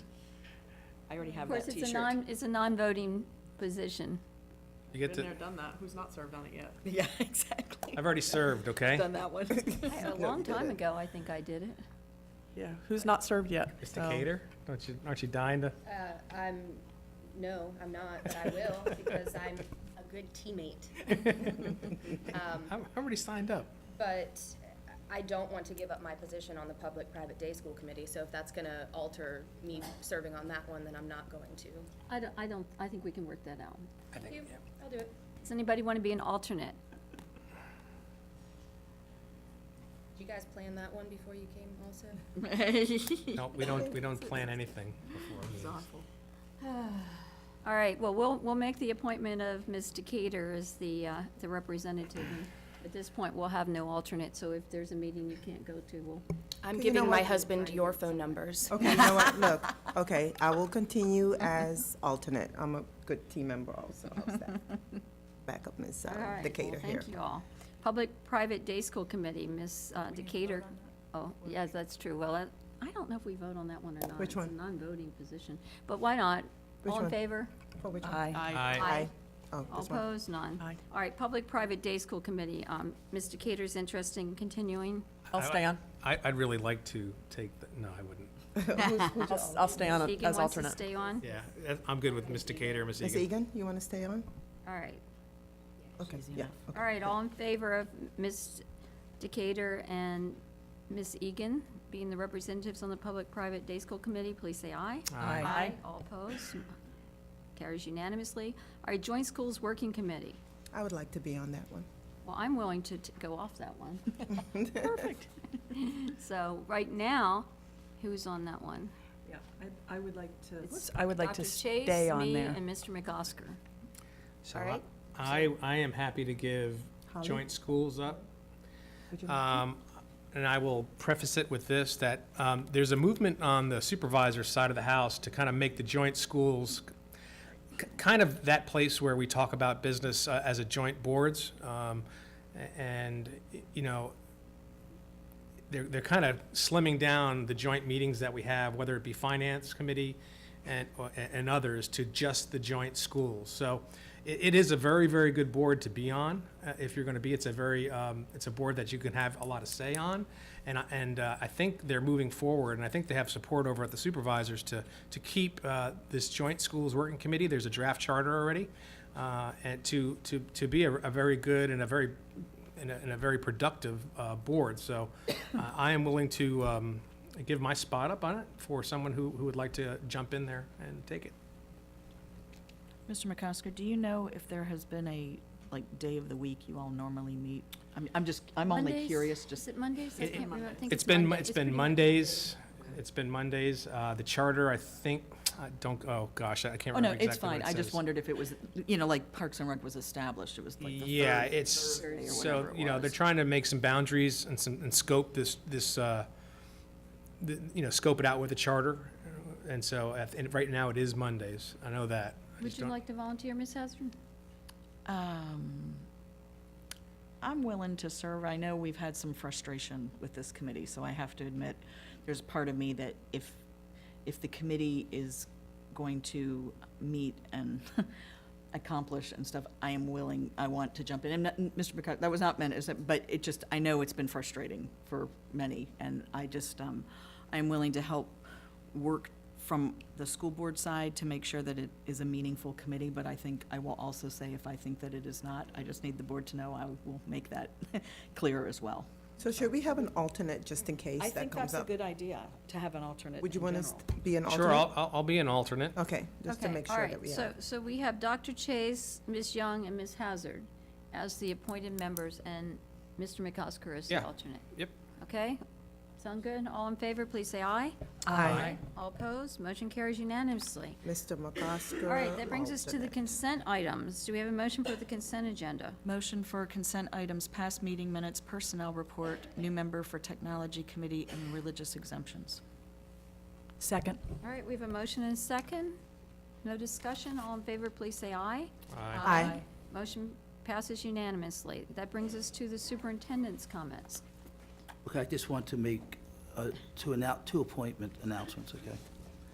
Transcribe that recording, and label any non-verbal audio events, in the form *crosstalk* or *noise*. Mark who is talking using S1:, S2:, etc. S1: I already
S2: Of
S1: have that
S2: course,
S1: T-shirt.
S2: it's a non, it's a non-voting position.
S3: You
S4: Been
S3: get to,
S4: there, done that. Who's not served on it yet?
S1: *laughs* Yeah, exactly.
S3: I've already served, okay?
S1: Done that one.
S2: *laughs* I- A
S1: No,
S2: long
S1: we did
S2: time
S1: it.
S2: ago, I think I did it.
S4: Yeah, who's not served yet?
S3: It's
S4: so-
S3: Decatur? Don't you, aren't you dying to?
S5: Uh, I'm, no, I'm not, but I will, because I'm a good teammate. Um,
S3: I'm, I'm already signed *laughs* up.
S5: But I don't want to give up my position on the Public-Private Day School Committee, so if that's gonna alter me serving on that one, then I'm not going to.
S2: I don't, I don't, I think we can work that out.
S5: You- I'll do it.
S2: Does anybody want to be an *laughs* alternate?
S5: Did you guys plan that one before you came also?
S3: No, we don't, we don't plan anything before.
S4: It's
S3: meetings.
S4: awful.
S2: All right, well, we'll, we'll make the appointment of Ms. Decatur as the, uh, the representative. And At this point, we'll have no alternate, so if there's a meeting you can't go to, we'll,
S5: I'm
S6: You know giving my what?
S5: husband your phone numbers.
S6: Okay, you know what, look, okay, I will continue
S2: *laughs*
S6: as alternate. I'm a good team member also, how's that? Back up Ms.
S2: all right.
S6: um, Decatur
S2: well,
S6: here.
S2: Thank you all. Public-private day school committee, Ms. uh, Decatur. Oh, yes, that's true. Well, I- I don't know if we vote on that one or not.
S6: Which
S2: It's a
S6: one?
S2: non-voting position, but why not?
S6: Which
S2: All in
S6: one?
S2: favor?
S6: For which one?
S1: Aye.
S4: I,
S3: Aye.
S6: Oh,
S2: All
S6: this one.
S2: opposed? None.
S4: Aye.
S2: All right, Public-Private Day School Committee, um, Mr. Cater's interest in continuing.
S7: I'll stay on.
S3: I, I'd really like to take, the no, I wouldn't.
S6: *laughs*
S7: I'll- I'll stay on
S2: Deacon
S7: as
S2: wants to
S7: alternate.
S2: stay on?
S3: Yeah, I'm good with Ms. Decatur, Ms.
S6: Ms.
S3: Egan.
S6: Egan, you want to stay on?
S2: All right.
S6: Okay, yeah. okay.
S2: All right, all in favor of Ms. Decatur and Ms. Egan being the representatives on the Public-Private Day School Committee, please say aye.
S7: Aye.
S2: All opposed? Carries unanimously. All right, Joint Schools Working Committee.
S6: I would like to be on that one.
S2: Well, I'm willing to t- go off that one. Perfect. *laughs* So right now, who's on that one?
S7: Yeah, I would like
S2: It's
S7: I would like to
S2: Dr. Chase,
S7: stay on
S2: me,
S7: there.
S2: and Mr. McOsker.
S3: So
S2: All right.
S3: I, I am happy to give
S6: Holly?
S3: joint schools up.
S6: Would you
S3: Um, And I will preface it with this, that um, there's a movement on the supervisor side of the house to kind of make the joint schools k- kind of that place where we talk about business uh, as a joint boards. Um, a- And, y- you know, they're, they're kind of slimming down the joint meetings that we have, whether it be finance committee and, or- a- and others, to just the joint schools. So it, it is a very, very good board to be on, uh, if you're going to be. It's a very, um, it's a board that you can have a lot of say on. And, I- and uh, I think they're moving forward, and I think they have support over at the supervisors to, to keep uh, this joint schools working committee. There's a draft charter already. uh, And to, to, to be a, a very good and a very in a, in a very productive uh, board. So uh, I am willing to um, give my spot up on it for someone who, who would like to jump in there and take it.
S8: Mr. McCosker, do you know if there has been a, like, day of the week you all normally meet? I'm, I'm just, I'm only
S2: Mondays?
S8: curious,
S2: Is
S8: just,
S2: it Mondays? I
S3: It-
S2: can't remember. I think
S3: It's been,
S2: Monday-
S3: it's been
S2: pretty-
S3: Mondays, it's been Mondays. Uh, The charter, I think, I don't, oh, gosh, I can't
S8: oh, no,
S3: remember
S8: it's
S3: exactly what
S8: fine.
S3: it
S8: I just
S3: says.
S8: wondered if it was, you know, like Parks and Rec was established, it was like the
S3: Yeah,
S8: third
S3: it's,
S8: Thursday or
S3: so,
S8: whatever it
S3: you know, they're
S8: was.
S3: trying to make some boundaries and some, and scope this, this, uh, th- you know, scope it out with the charter. And so, at- and right now, it is Mondays. I know that. I
S2: Would
S3: just
S2: you
S3: don't-
S2: like to volunteer, Ms. Hasbro?
S8: Um, I'm willing to serve. I know we've had some frustration with this committee, so I have to admit, there's a part of me that if, if the committee is going to meet and *laughs* accomplish and stuff, I am willing, I want to jump in. And not- Mr. McCut, that was not meant as, a- but it just, I know it's been frustrating for many, and I just, um, I'm willing to help work from the school board side to make sure that it is a meaningful committee, but I think, I will also say if I think that it is not, I just need the board to know, I will make that *laughs* clear as well.
S6: So should we have an alternate just in
S1: I
S6: case that
S1: think
S6: comes
S1: that's a
S6: up?
S1: good idea, to have an alternate
S6: Would you
S1: in
S6: want
S1: general.
S6: to be an alternate? Oh.
S3: Sure, I'll, I'll- I'll be an alternate.
S6: Okay, just to
S2: Okay,
S6: make
S2: all
S6: sure
S2: right.
S6: that we
S2: So,
S6: have.
S2: so we have Dr. Chase, Ms. Young, and Ms. Hazard as the appointed members, and Mr. McCosker as the
S3: Yeah.
S2: alternate.
S3: Yep.
S2: Okay? Sound good? All in favor, please say aye.
S3: Aye.
S2: All opposed? Motion carries unanimously.
S6: Mr. McCosker.
S2: All right, that brings us to the
S6: alternate.
S2: consent items. Do we have a motion for the consent agenda?
S8: Motion for consent items, past meeting minutes, personnel report, new member for technology committee, and religious exemptions.
S7: Second.
S2: All right, we have a motion and a second. No discussion. All in favor, please say aye.
S3: Aye.
S6: Aye.
S2: Motion passes unanimously. That brings us to the superintendent's comments.
S9: Okay, I just want to make, uh, to announce, two appointment announcements, okay?